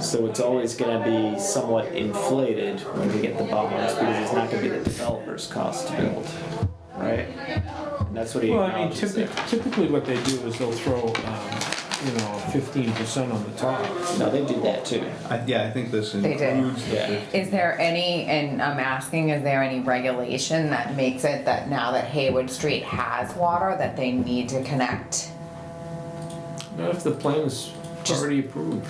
So it's always going to be somewhat inflated when we get the bonds because it's not going to be the developer's cost to build, right? And that's what he Well, I mean, acknowledges there. typically, typically what they do is they'll throw, um, you know, fifteen percent on the top. No, they do that too. I- Yeah, I think this They did. includes the Yeah. fifty. Is there any, and I'm asking, is there any regulation that makes it that now that Haywood Street has water, that they need to connect? Not if the plan is Just- already approved.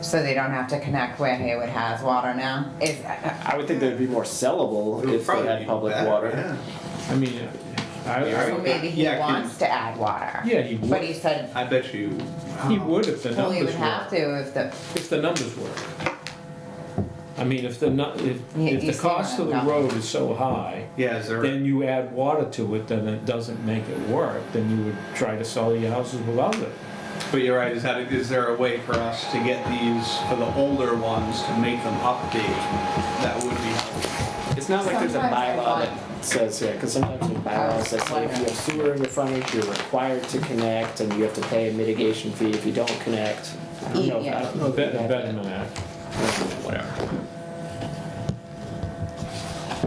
So they don't have to connect where Haywood has water now? Is, I would think they'd be more sellable It would if they probably had be public better, water. yeah. I mean, I, so I, maybe he Yeah, 'cause- wants to add water? Yeah, he But would. he said, I bet you. he would if the well, he would numbers have work, to if the, if the numbers work. I mean, if the nu, if, You- if you the see cost what of the I'm road is so high, Yeah, is there, then you add water to it, then it doesn't make it work, then you would try to sell your houses without it. but you're right, is that, is there a way for us to get these, for the older ones, to make them update? That would be helpful. It's not like there's a Sometimes I bylaw want- that says, yeah, because sometimes with bylaws that say if you have sewer in your frontage, you're required to connect and you have to pay a mitigation fee if you don't connect. I don't know, if- I don't know. if Bet- you have that. Betterment Act. Whatever.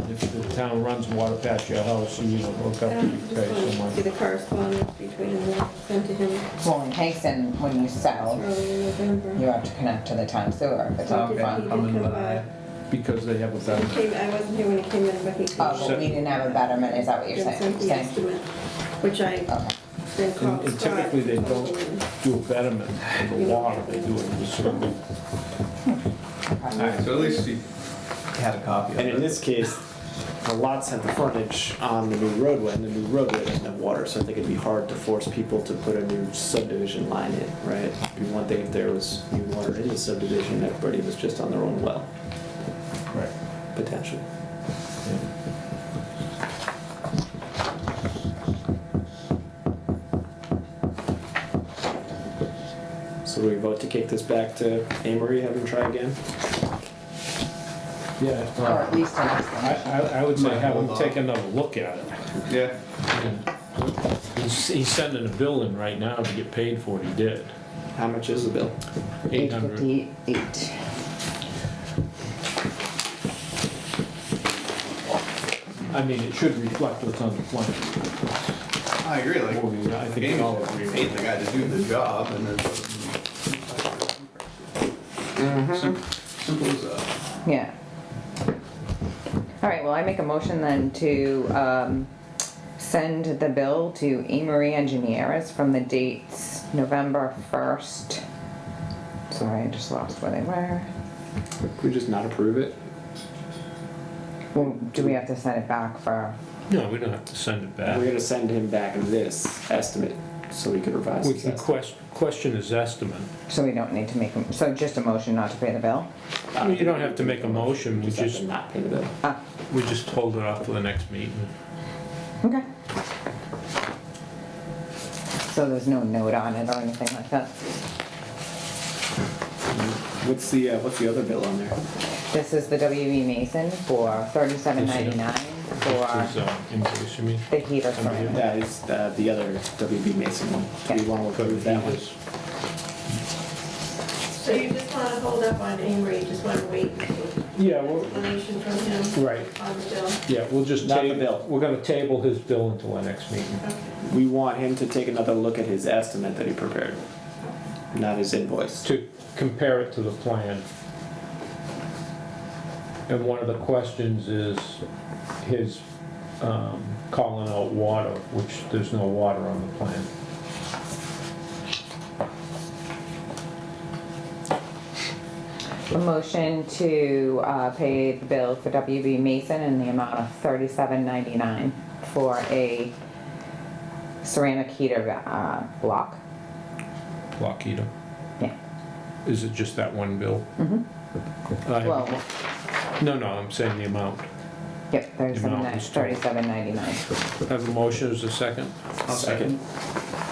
If the town runs water past your house, you don't hook up, you pay so See much. the correspondence between the, sent to him well, in Kingston, when you Oh. sell, early in you November. have to connect to the town sewer, Um, if it's all Okay. fun. I'm in come line. Because they have a He better, came, I wasn't here when he came in, but he. Oh, but we didn't have a betterment, is that what you're and saying? sent the saying? estimate, which I Okay. then and called and Scott. typically they don't do a betterment for the water, they do it for the sewer. Alright, so at least he had a copy of And in it. this case, the lots have the frontage on the new roadway, and the new roadway doesn't have water, so I think it'd be hard to force people to put a new subdivision line in, right? It'd be one thing if there was new water in the subdivision, and everybody was just on their own well, Right. potentially. So do we vote to kick this back to Amory, have him try again? Yeah, Or well, at least an I, estimate. I, I would say Might have him hold take off. another look at it. Yeah, He's, he's sending a bill in right now to get paid for what he did. How much is the bill? Eight hundred, fifty-eight. I mean, it should reflect what's on the plan. I agree, like, Well, we- I think we Amy all agree. paid the guy to do the job and then. Sim- Simple as that. Yeah. All right, well, I make a motion then to um, send the bill to Amory Engineers from the dates November 1st. Sorry, I just lost where they were. Could we just not approve it? Well, do we have to send it back for, No, we don't have to send it We're back. gonna send him back this estimate, so we could revise We his can estimate. question, question his estimate. so we don't need to make, a- so just a motion not to pay the bill? You don't have to make a motion, we Just have just, to not pay the bill. Ah, we just hold it off for the next meeting. okay. So there's no note on it or anything like that? What's the, uh, what's the other bill on there? This is the WB Mason for $37.99 This is, for uh, invoice, you mean? the heater for Yeah, it's uh, the other WB Mason one. Do you wanna approve that one? So you just wanna hold up on Amory, you just wanna wait for Yeah, well, explanation from him? Right. On the bill, yeah, we'll just Not the table, bill. we're gonna table his bill until our next meeting. okay. We want him to take another look at his estimate that he prepared, not his invoice. to compare it to the plan. And one of the questions is his um, calling out water, which there's no water on the plan. A motion to uh, pay the bill for WB Mason in the amount of thirty-seven ninety-nine for a ceramic heater uh, block. Lockheed. Yeah. Is it just that one bill? Well, Mm-hmm. No, no, I'm saying the amount. yep, thirty-seven amount is total. ninety-nine. I have a motion, is there a second? I'll second.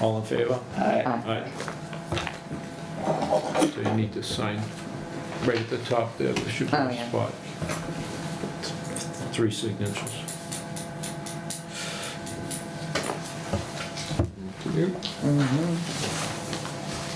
All in favor? Alright, Aye. So you need to sign right at the top there, there should be Oh, a yeah. spot. Three signatures.